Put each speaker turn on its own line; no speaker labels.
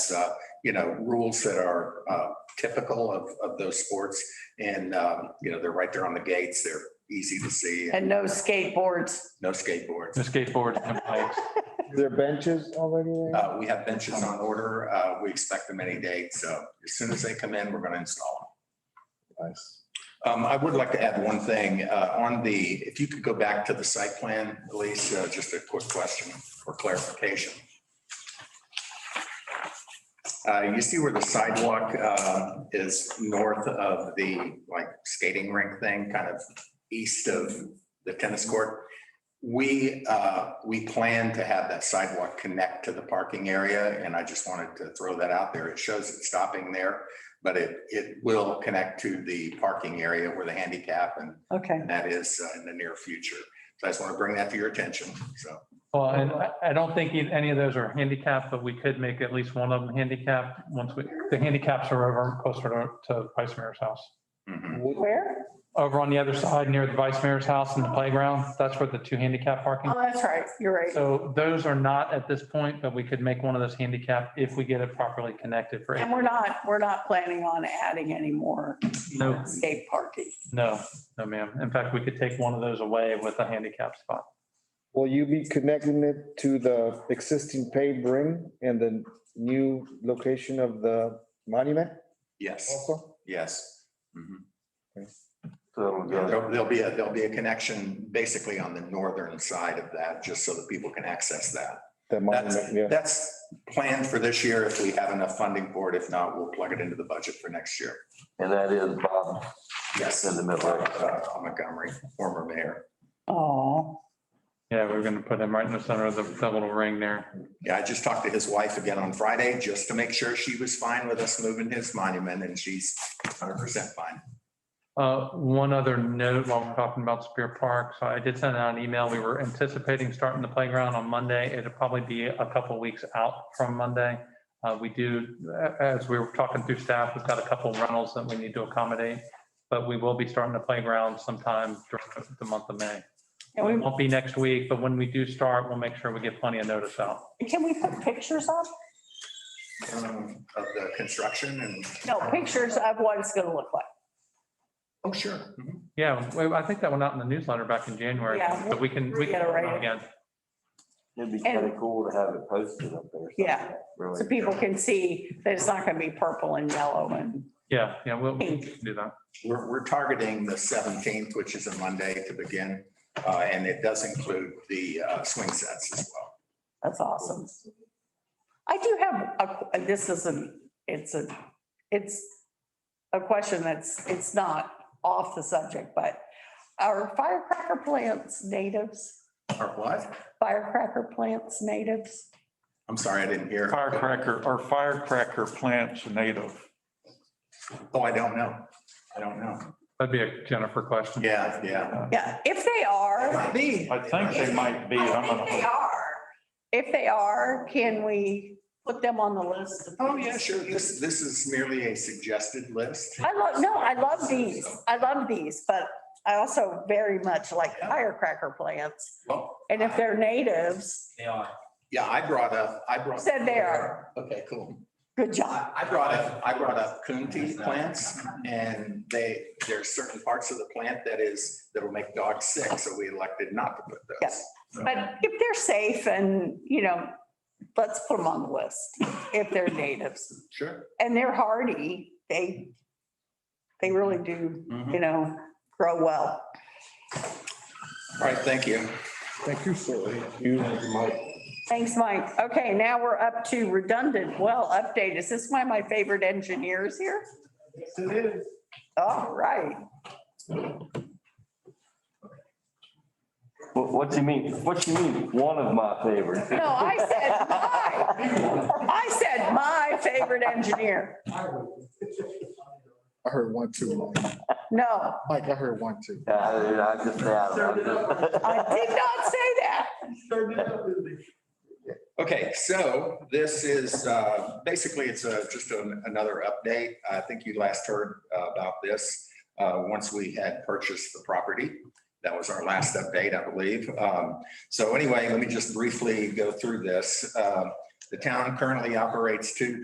has, uh, you know, rules that are uh, typical of, of those sports. And, um, you know, they're right there on the gates. They're easy to see and
And no skateboards.
no skateboards.
The skateboards and bikes.
There benches already there?
Uh, We have benches on order. Uh, We expect them any day. So as soon as they come in, we're going to install them.
Nice.
Um, I would like to add one thing, uh, on the, if you could go back to the site plan, Elise, uh, just a quick question or clarification. Uh, you see where the sidewalk, uh, is north of the, like, skating rink thing, kind of east of the tennis court? We, uh, we plan to have that sidewalk connect to the parking area, and I just wanted to throw that out there. It shows it stopping there but it, it will connect to the parking area where the handicap and
Okay.
and that is uh, in the near future. So I just want to bring that to your attention. So,
Well, and I, I don't think e- any of those are handicapped, but we could make at least one of them handicapped once we, the handicaps are over closer to, to Vice Mayor's house.
mhm.
Where?
Over on the other side near the Vice Mayor's house and the playground, that's where the two handicap parking.
Oh, that's right. You're right.
So those are not at this point, but we could make one of those handicap if we get it properly connected for,
And we're not, we're not planning on adding any more
no,
skate parking.
no, no ma'am. In fact, we could take one of those away with a handicap spot.
Will you be connecting it to the existing paved ring and the new location of the monument
yes,
also?
yes. Mhm.
So it'll go-
There'll there'll be, a there'll be a connection basically on the northern side of that, just so that people can access that.
The monument,
That's,
yeah.
that's planned for this year if we have enough funding for it. If not, we'll plug it into the budget for next year.
And that is Bob
Yes,
in the middle.
uh, Montgomery, former mayor.
Oh,
Yeah, we're going to put him right in the center of the, the little ring there.
Yeah, I just talked to his wife again on Friday just to make sure she was fine with us moving his monument and she's hundred percent fine.
Uh, One other note while we're talking about Spear Park, so I did send out an email. We were anticipating starting the playground on Monday. It'll probably be a couple weeks out from Monday. Uh, We do, a- as we were talking through staff, we've got a couple rentals that we need to accommodate, but we will be starting the playground sometime during the month of May.
can
It
we,
won't be next week, but when we do start, we'll make sure we get plenty of notice out.
can we put pictures up?
Um, Of the construction and,
No, pictures of what it's gonna look like.
oh, sure. Mhm.
Yeah, well, I think that went out in the newsletter back in January,
Yeah,
but we can, we can,
reiterate it.
again,
It'd be kind of cool to have it posted up there.
Yeah.
Really.
So people can see that it's not gonna be purple and yellow and,
yeah, yeah, we'll we
Pink.
can do that.
We're, we're targeting the seventeenth, which is a Monday to begin. Uh, and it does include the uh, swing sets as well.
that's awesome. I do have, a- and this isn't, it's a, it's a question that's, it's not off the subject, but are firecracker plants natives?
Or what?
Firecracker plants natives?
I'm sorry, I didn't hear.
Firecracker, are firecracker plants native?
Oh, I don't know. I don't know.
That'd be a Jennifer question.
Yeah, yeah.
Yeah, if they are,
Might be.
I think they might be. I'm
I think they
gonna-
are. If they are, can we put them on the list? of
Oh, yeah,
things?
sure. This, this is merely a suggested list.
I love, no, I love these. I love these, but I also very much like firecracker plants.
Well,
And if they're natives,
They are.
Yeah, I brought up, I brought.
Said they are.
Okay, cool.
good job.
I I brought up, I brought up Kunti plants and they, there's certain parts of the plant that is, that'll make dogs sick, so we elected not to put those.
Yes. But if they're safe and, you know, let's put them on the list if they're natives.
Sure.
And they're hardy. They, they really do, you know, grow well.
All right, thank you.
Thank you, sir. You, Mike.
Thanks, Mike. Okay, now we're up to redundant well update. Is this one of my favorite engineers here? All right.
What, what you mean? What you mean? One of my favorites.
No, I said my, I said my favorite engineer.
I heard one, two. Mike.
No,
Mike, I heard one, two.
Yeah, I I just,
I
yeah.
did not say that.
Okay, so this is, uh, basically, it's a- just an- another update. I think you last heard uh, about this uh, once we had purchased the property. That was our last update, I believe. Um, So anyway, let me just briefly go through this. Um, The town currently operates two